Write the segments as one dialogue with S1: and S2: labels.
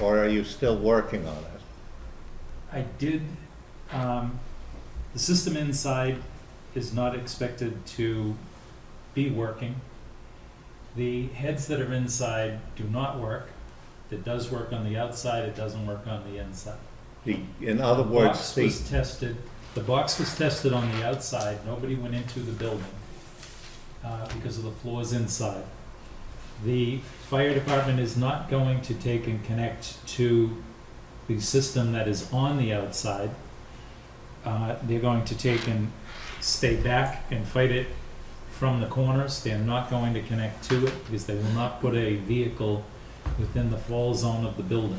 S1: Or are you still working on it?
S2: I did, um, the system inside is not expected to be working. The heads that are inside do not work. It does work on the outside, it doesn't work on the inside.
S1: The- In other words,
S2: Box
S1: the,
S2: was tested, the box was tested on the outside, nobody went into the building, uh, because of the floors inside. The fire department is not going to take and connect to the system that is on the outside. Uh, they're going to take and stay back and fight it from the corners, they're not going to connect to it, because they will not put a vehicle within the fall zone of the building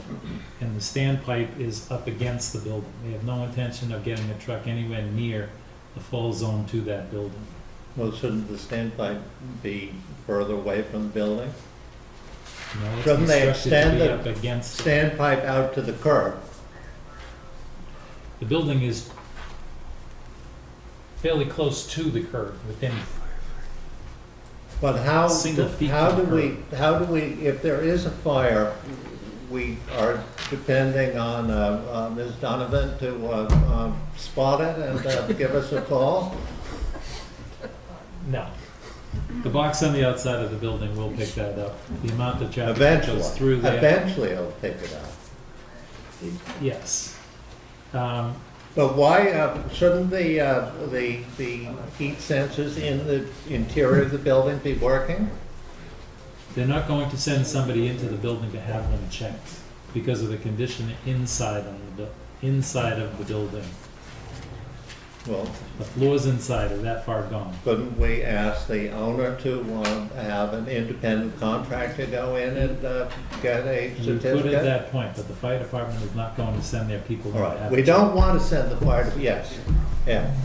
S2: and the standpipe is up against the building. They have no intention of getting a truck anywhere near the fall zone to that building.
S1: well, shouldn't the standpipe be further away from the building?
S2: You know, it's
S1: Shouldn't they
S2: constructed to
S1: extend
S2: be
S1: it?
S2: up against, it.
S1: Standpipe out to the curb,
S2: the building is fairly close to the curb, within,
S1: but how,
S2: Single feet
S1: how
S2: to the
S1: do we, how do we, if there is a fire, we are depending on, uh, uh, Ms. Donovan to, uh, um, spot it and uh, give us a call?
S2: no. The box on the outside of the building will pick that up. The amount of traffic that
S1: Eventually,
S2: goes through there.
S1: eventually it'll pick it up.
S2: Yes. Um,
S1: But why, uh, shouldn't the, uh, the, the heat sensors in the interior of the building be working?
S2: They're not going to send somebody into the building to have them checked because of the condition inside on the, bu- inside of the building.
S1: Well,
S2: The floors inside are that far gone.
S1: couldn't we ask the owner to, uh, have an independent contractor go in and, uh, get a
S2: And You could at
S1: certificate?
S2: that point, but the fire department is not going to send their people.
S1: All
S2: to
S1: right,
S2: have
S1: we
S2: it checked.
S1: don't want to send the fire, to- yes, yeah,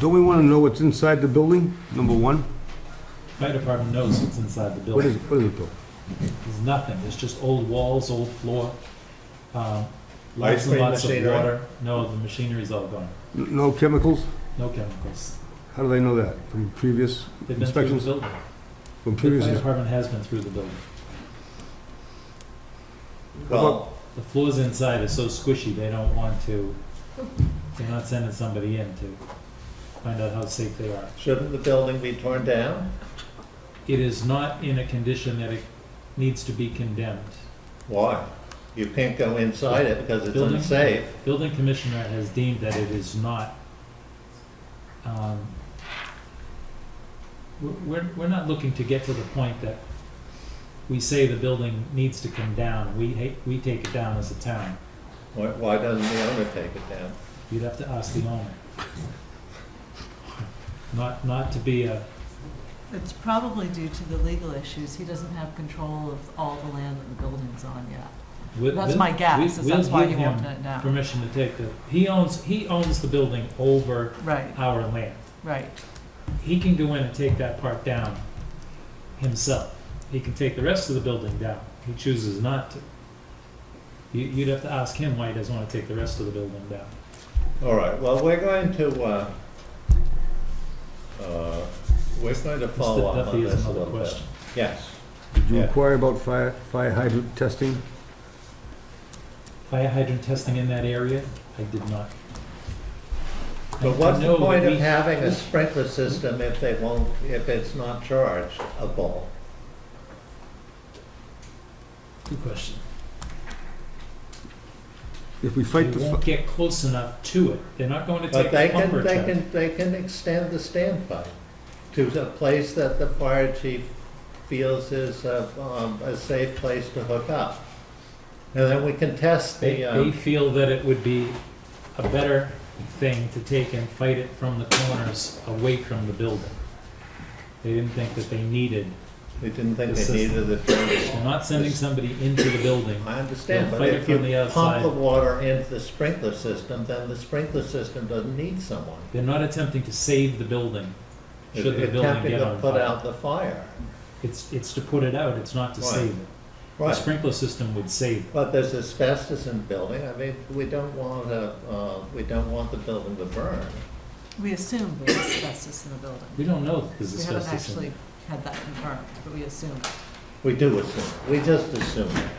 S3: Don't we want to know what's inside the building, number one?
S2: Fire department knows what's inside the
S3: What is,
S2: building.
S3: what is it though?
S2: There's nothing. There's just old walls, old floor, um,
S1: Ice
S2: lots and
S1: cream
S2: lots of
S1: machinery?
S2: water. No, the machinery's all gone.
S3: N- No chemicals?
S2: No chemicals.
S3: How do they know that? From previous
S2: They've been through the
S3: inspections?
S2: building.
S3: From
S2: The
S3: previous,
S2: fire
S3: ins-
S2: department has been through the building.
S1: well,
S2: The floors inside are so squishy, they don't want to, they're not sending somebody in to find out how safe they are.
S1: shouldn't the building be torn down?
S2: It is not in a condition that it needs to be condemned.
S1: Why? You can't go inside it because it's
S2: Building?
S1: unsafe.
S2: Building commissioner has deemed that it is not, um, we're- we're, we're not looking to get to the point that we say the building needs to come down, we hate, we take it down as a town.
S1: Why, why doesn't the owner take it down?
S2: You'd have to ask the owner. Not, not to be a,
S4: It's probably due to the legal issues. He doesn't have control of all the land that the building's on yet.
S2: We'll-
S4: That's
S2: we'll-
S4: my guess,
S2: we-
S4: is that's why he
S2: we'll give
S4: wanted
S2: him
S4: it now.
S2: Permission to take the, he owns, he owns the building over
S4: Right,
S2: our land.
S4: right.
S2: He can go in and take that part down himself. He can take the rest of the building down. He chooses not to. You, you'd have to ask him why he doesn't want to take the rest of the building down.
S1: All right, well, we're going to, uh, uh, we're going to follow
S2: Mr.
S1: up on
S2: Duffy
S1: this
S2: has
S1: a
S2: another
S1: little bit.
S2: question.
S1: Yes,
S3: did you
S1: Yeah.
S3: inquire about fire, fire hydrant testing?
S2: Fire hydrant testing in that area, I did not. I- I
S1: but what's
S2: know
S1: the
S2: that
S1: point of
S2: we-
S1: having a sprinkler system if they won't, if it's not chargeable?
S2: Good question.
S3: If we fight
S2: They
S3: the,
S2: won't
S3: fi-
S2: get close enough to it. They're not going to
S1: But
S2: take
S1: they
S2: the
S1: can,
S2: pumper
S1: they
S2: truck.
S1: can, they can extend the standby to a place that the fire chief feels is a, um, a safe place to hook up. And then we can test
S2: They,
S1: the,
S2: they
S1: um,
S2: feel that it would be a better thing to take and fight it from the corners away from the building. They didn't think that they needed,
S1: we didn't think
S2: the
S1: they needed the transfer.
S2: they're not sending somebody into the building.
S1: I understand, but
S2: They'll fight
S1: if
S2: it
S1: you
S2: from the
S1: pump
S2: outside.
S1: the water into the sprinkler system, then the sprinkler system doesn't need someone.
S2: They're not attempting to save the building,
S1: It-
S2: should the
S1: it's
S2: building
S1: tempting
S2: get
S1: to
S2: on
S1: Put
S2: fire.
S1: out the fire.
S2: It's, it's to put it out, it's not to
S1: Right.
S2: save it. The
S1: Right,
S2: sprinkler system would save it.
S1: but there's asbestos in the building, I mean, we don't want to, uh, we don't want the building to burn.
S4: We assume there's asbestos in the building.
S2: We don't know that there's
S4: We haven't
S2: asbestos in
S4: actually
S2: it.
S4: had that confirmed, but we assume.
S1: We do assume, we just assume. it.